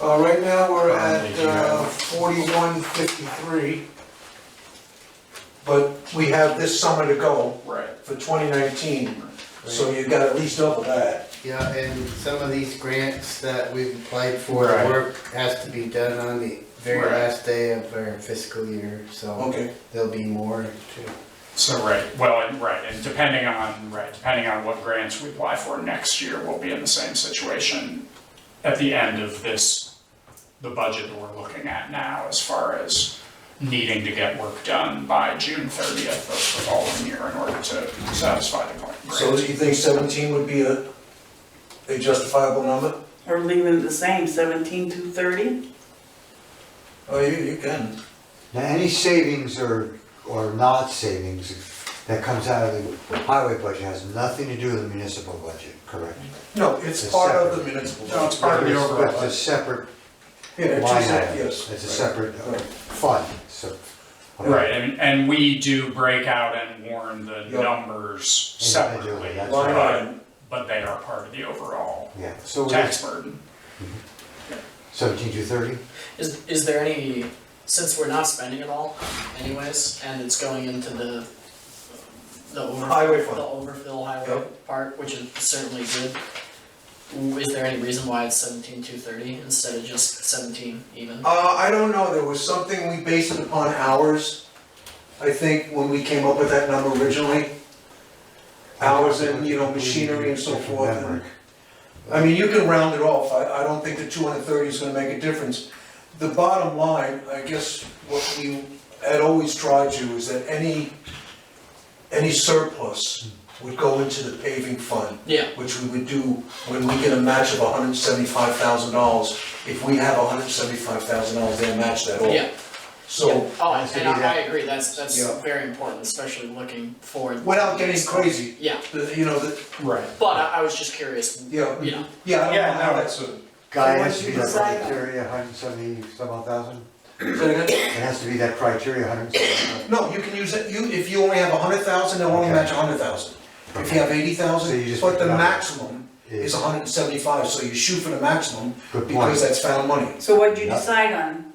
Uh, right now, we're Currently, at uh, do you have- forty-one fifty-three. But we have this summer to go Right. for twenty nineteen, so you got at least double that. Yeah, and some of these grants that we've applied for, the Right. work has to be done on the very Right. last day of our fiscal year, so Okay, there'll be more too. So, right, well, and, right, and depending on, right, depending on what grants we apply for next year, we'll be in the same situation at the end of this, the budget that we're looking at now, as far as needing to get work done by June thirtieth of the following year in order to satisfy the so do grant. you think seventeen would be a, a justifiable number? Or leaving it the same, seventeen to thirty? Oh, you, you can. Now, any savings or, or not savings that comes out of the highway budget has nothing to do with the municipal budget, correct? No, it's It's part of the separate. municipal. No, it's part of the overall It's a budget. separate Yeah, it's line just- item. yes. It's a separate uh, Right. fund, so. Right, and, and we do break out and warn the Yeah. numbers Individually, separately, that's Line right. item. but they are part of the overall Yeah, so tax burden. seventeen to thirty? Is, is there any, since we're not spending it all anyways, and it's going into the, the over. Highway fund. The overfill highway Yep. part, which is certainly good, w- is there any reason why it's seventeen two thirty instead of just seventeen even? Uh, I don't know, there was something, we based it upon hours, I think, when we came up with that number originally. Hours and, you know, machinery and so forth, and, I mean, you can round it off, I, I don't think the two hundred and thirty is gonna make a difference. The bottom line, I guess, what we had always tried to, is that any, any surplus would go into the paving fund Yeah, which we would do when we get a match of hundred and seventy-five thousand dollars. If we have hundred and seventy-five thousand dollars, they'll match that all. yeah, yeah, So, oh, has to and be I, I that- agree, that's, that's Yeah. very important, especially looking forward. without getting crazy, Yeah, the- you know, the, Right. but I, I was just curious, you know, you know, yeah, I don't know how that's. that's a. Guy, it So has to what be you that decide on- criteria, hundred and seventy some odd thousand? Say again? It has to be that criteria, hundred and seventy. No, you can use it, you, if you only have hundred thousand, they'll only Okay. match hundred thousand. If you have eighty So you thousand, just but pick the it up. maximum is hundred and seventy-five, so you shoot for the maximum Good because point. that's found money. So what'd you Yeah. decide on?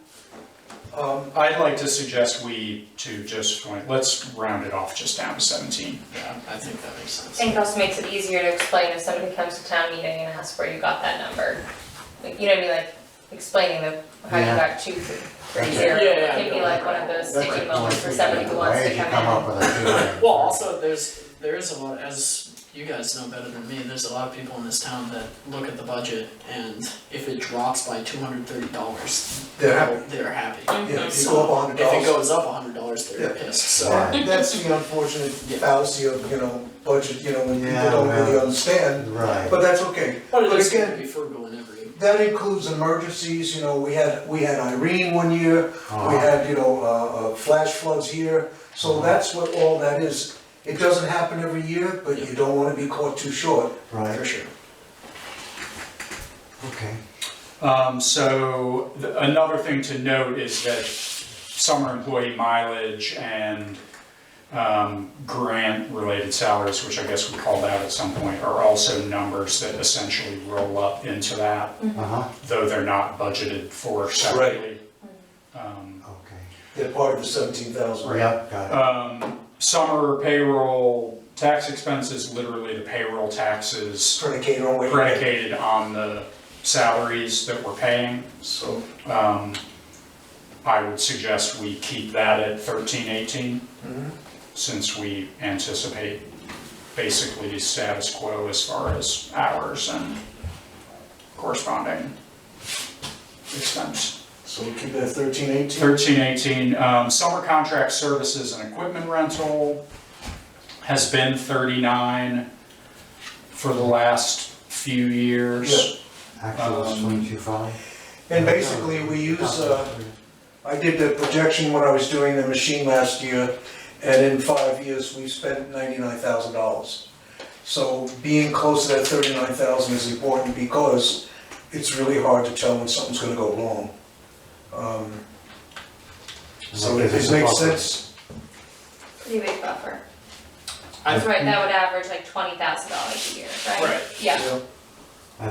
Um, I'd like to suggest we to just, let's round it off just down to seventeen. yeah, I think that makes sense. I think it also makes it easier to explain if somebody comes to town meeting and asks where you got that number. Like, you know what I mean, like explaining the, how you Yeah. got two, three, That's zero, it. Yeah, yeah, can be yeah. like one of those That's a sticky moments for point. somebody who wants Why to did come in. you come up with a figure? Well, also, there's, there is a lot, as you guys know better than me, there's a lot of people in this town that look at the budget and if it drops by two hundred thirty dollars, They're happy, they're happy. yeah, if you So, go up hundred If it dollars. goes up hundred dollars, they're Yeah. pissed, so, Right. That's the unfortunate Yeah. fallacy of, you know, budget, you know, when people Yeah, don't really well. understand. Right. But that's okay. but it But is again- gonna be frugal in every, That includes emergencies, you know, we had, we had Irene one year, we Uh-huh. had, you know, uh, uh, flash floods here. So that's what all that is. It doesn't happen every year, but you don't wanna be caught too short. for Right, sure. okay. Um, so th- another thing to note is that summer employee mileage and um, grant-related salaries, which I guess we called out at some point, are also numbers that essentially roll up into that, Uh-huh, though they're not budgeted for separately. Um, okay. They're part of the seventeen thousand. Yep, got um, summer payroll, tax expenses, literally the payroll taxes Predicated on what you get. predicated on the salaries that we're paying. So, Um, I would suggest we keep that at thirteen eighteen, mhm. since we anticipate basically status quo as far as hours and corresponding expense. so we keep it at thirteen eighteen. Thirteen eighteen, um, summer contract services and equipment rental has been thirty-nine for the last few years. it. Actual is um, twenty-two five? And basically, we use, uh, I did the projection when I was doing the machine last year, and in five years, we spent ninety-nine thousand dollars. So being close to that thirty-nine thousand is important because it's really hard to tell when something's gonna go wrong. Um, So if it makes sense, Pretty big buffer. I- That's right, that would average like twenty thousand dollars a year, right? Right. Yeah, you know,